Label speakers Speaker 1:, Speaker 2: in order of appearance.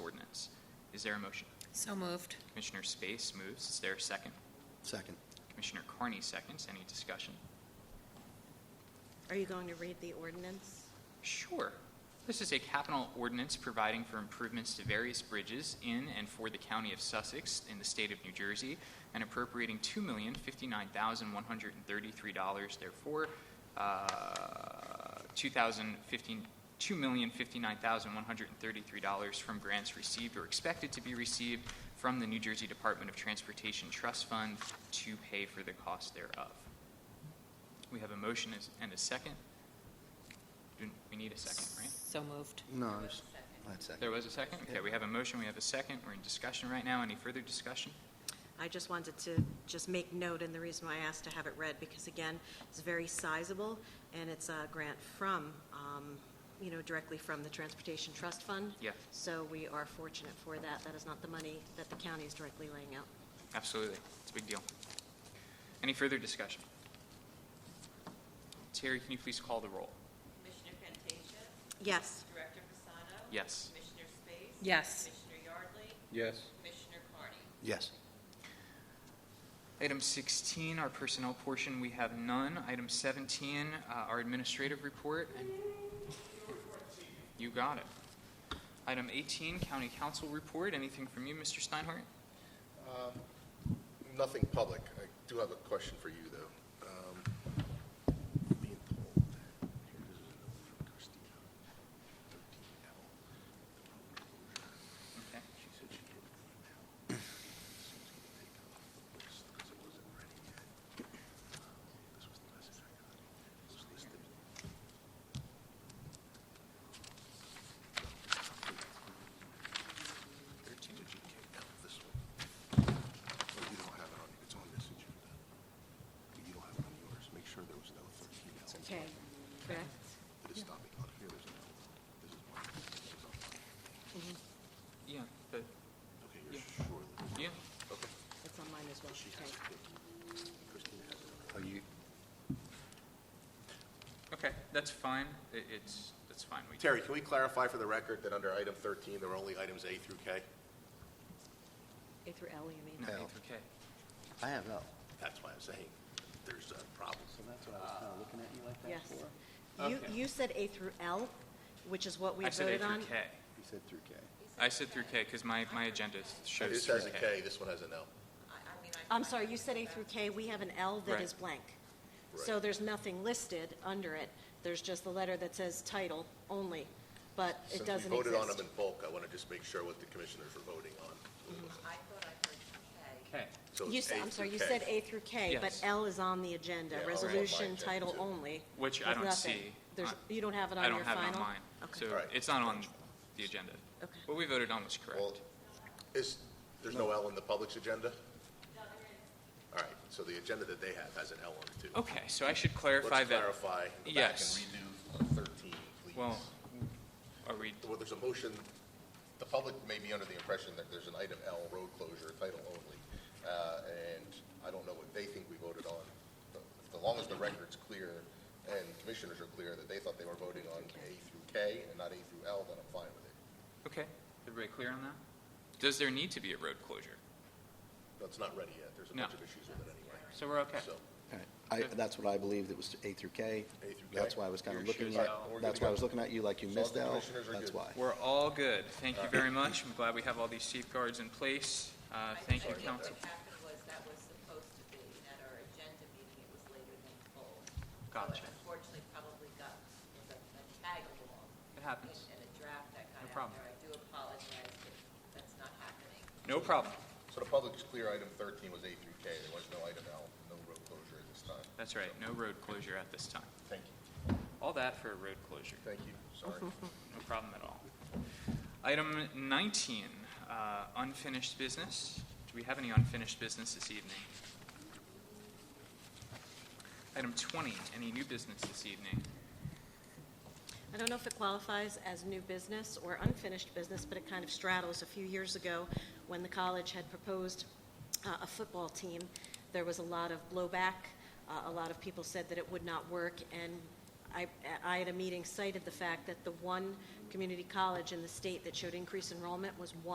Speaker 1: Is there a motion?
Speaker 2: So moved.
Speaker 1: Commissioner Space moves. Is there a second?
Speaker 3: Second.
Speaker 1: Commissioner Carney seconds. Any discussion?
Speaker 4: Are you going to read the ordinance?
Speaker 1: Sure. This is a capital ordinance providing for improvements to various bridges in and for the county of Sussex in the state of New Jersey and appropriating $2,059,133 therefore, uh, 2015 $2,059,133 from grants received or expected to be received from the New Jersey Department of Transportation Trust Fund to pay for the cost thereof. We have a motion is- and a second. Do- We need a second, right?
Speaker 2: So moved.
Speaker 3: No, I was- that's second.
Speaker 1: There was a second? Okay, we have a motion, we have a second, we're in discussion right now. Any further discussion?
Speaker 4: I just wanted to just make note, and the reason why I asked to have it read, because again, it's very sizable, and it's a grant from, um, you know, directly from the Transportation Trust Fund.
Speaker 1: Yeah.
Speaker 4: So we are fortunate for that. That is not the money that the county is directly laying out.
Speaker 1: Absolutely, it's a big deal. Any further discussion? Terry, can you please call the roll?
Speaker 5: Commissioner Fantasia?
Speaker 4: Yes.
Speaker 5: Director Fasano?
Speaker 1: Yes.
Speaker 5: Commissioner Space?
Speaker 2: Yes.
Speaker 5: Commissioner Yardley?
Speaker 6: yes,
Speaker 5: Commissioner Carney?
Speaker 3: Yes.
Speaker 1: Item 16, our personnel portion, we have none. Item 17, uh, our administrative report. and- You got it. Item 18, county council report. Anything from you, Mr. Steinhardt?
Speaker 7: Nothing public. I do have a question for you, though. Um, being told, here is a note from Christina, 13L, the road closure.
Speaker 1: Okay.
Speaker 7: She said she did an email. She's gonna take it off the list 'cause it wasn't ready yet. Um, This was the message I got. It was listed. Thirteen, did you take out this one? Oh, you don't have it on, it's on this agenda. But you don't have it on yours. Make sure there was no thirteen L.
Speaker 4: Okay. Correct?
Speaker 7: It is stopping on here, there's no, this is one, this is on.
Speaker 4: Mm-hmm.
Speaker 1: Yeah, but,
Speaker 7: Okay,
Speaker 1: Yeah.
Speaker 7: you're sure that.
Speaker 1: yeah,
Speaker 7: Okay.
Speaker 4: It's on mine as well. Okay.
Speaker 7: Christina has it.
Speaker 3: Are Oh, you,
Speaker 1: okay, that's fine. It- It's, that's fine. We-
Speaker 7: Terry, can we clarify for the record that under item 13, there were only items A through K?
Speaker 4: A through L, you mean?
Speaker 1: No,
Speaker 3: L.
Speaker 1: it's okay.
Speaker 3: I have L.
Speaker 7: That's why I'm saying there's uh, a problem.
Speaker 3: So that's what I was kind of looking at you like that
Speaker 4: Yes.
Speaker 3: for.
Speaker 4: You,
Speaker 1: Okay.
Speaker 4: you said A through L, which is what we
Speaker 1: I
Speaker 4: voted
Speaker 1: said
Speaker 4: on.
Speaker 1: A through K.
Speaker 3: You said through K.
Speaker 1: I said through K because my, my agenda shows
Speaker 7: This
Speaker 1: through
Speaker 7: has a K, this one has an L.
Speaker 5: I, I mean,
Speaker 1: Um,
Speaker 5: I.
Speaker 4: I'm sorry, you said A through K, we have an L that
Speaker 1: Right.
Speaker 4: is blank. So
Speaker 7: Right.
Speaker 4: there's nothing listed under it, there's just the letter that says title only, but it
Speaker 7: Since
Speaker 4: doesn't
Speaker 7: we voted on them
Speaker 4: exist.
Speaker 7: in bulk, I want to just make sure what the commissioners were voting on.
Speaker 5: I thought I heard K.
Speaker 1: K.
Speaker 7: So
Speaker 4: You
Speaker 7: it's
Speaker 4: said,
Speaker 7: A
Speaker 4: I'm sorry,
Speaker 7: through
Speaker 4: you
Speaker 7: K.
Speaker 4: said A through K, but
Speaker 1: Yes.
Speaker 4: L is on the agenda,
Speaker 7: Yeah, I'll write
Speaker 4: resolution
Speaker 7: mine down,
Speaker 4: title
Speaker 7: too.
Speaker 4: only.
Speaker 1: Which I
Speaker 4: with
Speaker 1: don't
Speaker 4: nothing.
Speaker 1: see.
Speaker 4: There's,
Speaker 1: Uh,
Speaker 4: you don't have it on
Speaker 1: I
Speaker 4: your
Speaker 1: don't
Speaker 4: final?
Speaker 1: have it on mine. So
Speaker 4: Okay,
Speaker 7: All right.
Speaker 1: it's not on the agenda.
Speaker 4: Okay.
Speaker 1: What we voted on was
Speaker 7: Well,
Speaker 1: correct.
Speaker 7: is, there's no L in the public's agenda? All right, so the agenda that they have has an L on it, too.
Speaker 1: Okay, so I should clarify
Speaker 7: Let's
Speaker 1: that.
Speaker 7: clarify, go back
Speaker 1: Yes.
Speaker 7: and redo 13, please.
Speaker 1: Well, are we,
Speaker 7: Well, there's a motion, the public may be under the impression that there's an item L, road closure, title only, uh, and I don't know what they think we voted on. But As long as the record's clear and commissioners are clear that they thought they were voting on A through K and not A through L, then I'm fine with it.
Speaker 1: okay, everybody clear on that? Does there need to be a road closure?
Speaker 7: But it's not ready yet, there's a
Speaker 1: No.
Speaker 7: bunch of issues with it anyway.
Speaker 1: So we're okay.
Speaker 7: So,
Speaker 3: All right. I, that's what I believed, it was A through K.
Speaker 7: A through K.
Speaker 3: That's why I was kind of
Speaker 1: Yours
Speaker 3: looking
Speaker 1: shows
Speaker 3: at,
Speaker 1: L.
Speaker 7: We're good
Speaker 3: that's
Speaker 7: to
Speaker 3: why I
Speaker 7: go.
Speaker 3: was looking at you like you
Speaker 7: As long as
Speaker 3: missed
Speaker 7: the
Speaker 3: L.
Speaker 7: commissioners are
Speaker 3: That's
Speaker 7: good.
Speaker 3: why.
Speaker 1: We're all good. Thank you very much. I'm glad we have all these safeguards in place. Uh, Thank you,
Speaker 5: I
Speaker 1: council.
Speaker 5: think what happened was that was supposed to be, at our agenda meeting, it was later than told.
Speaker 1: Gotcha.
Speaker 5: So it unfortunately, probably got, was a a tag along.
Speaker 1: It happens.
Speaker 5: And a draft that
Speaker 1: No
Speaker 5: got out
Speaker 1: problem.
Speaker 5: there. I do apologize if that's not happening.
Speaker 1: No problem.
Speaker 7: so the public's clear, item 13 was A through K, there was no item L, no road closure at this time.
Speaker 1: That's right, no road closure at this time.
Speaker 7: Thank you,
Speaker 1: All that for a road closure.
Speaker 7: thank you, Mm-hmm. sorry.
Speaker 1: No problem at all. Item 19, uh, unfinished business. Do we have any unfinished business this evening? Item 20, any new business this evening?
Speaker 4: I don't know if it qualifies as new business or unfinished business, but it kind of straddles. A few years ago, when the college had proposed uh, a football team, there was a lot of blowback. Uh, A lot of people said that it would not work, and I, I at a meeting cited the fact that the one community college in the state that showed increased enrollment was one.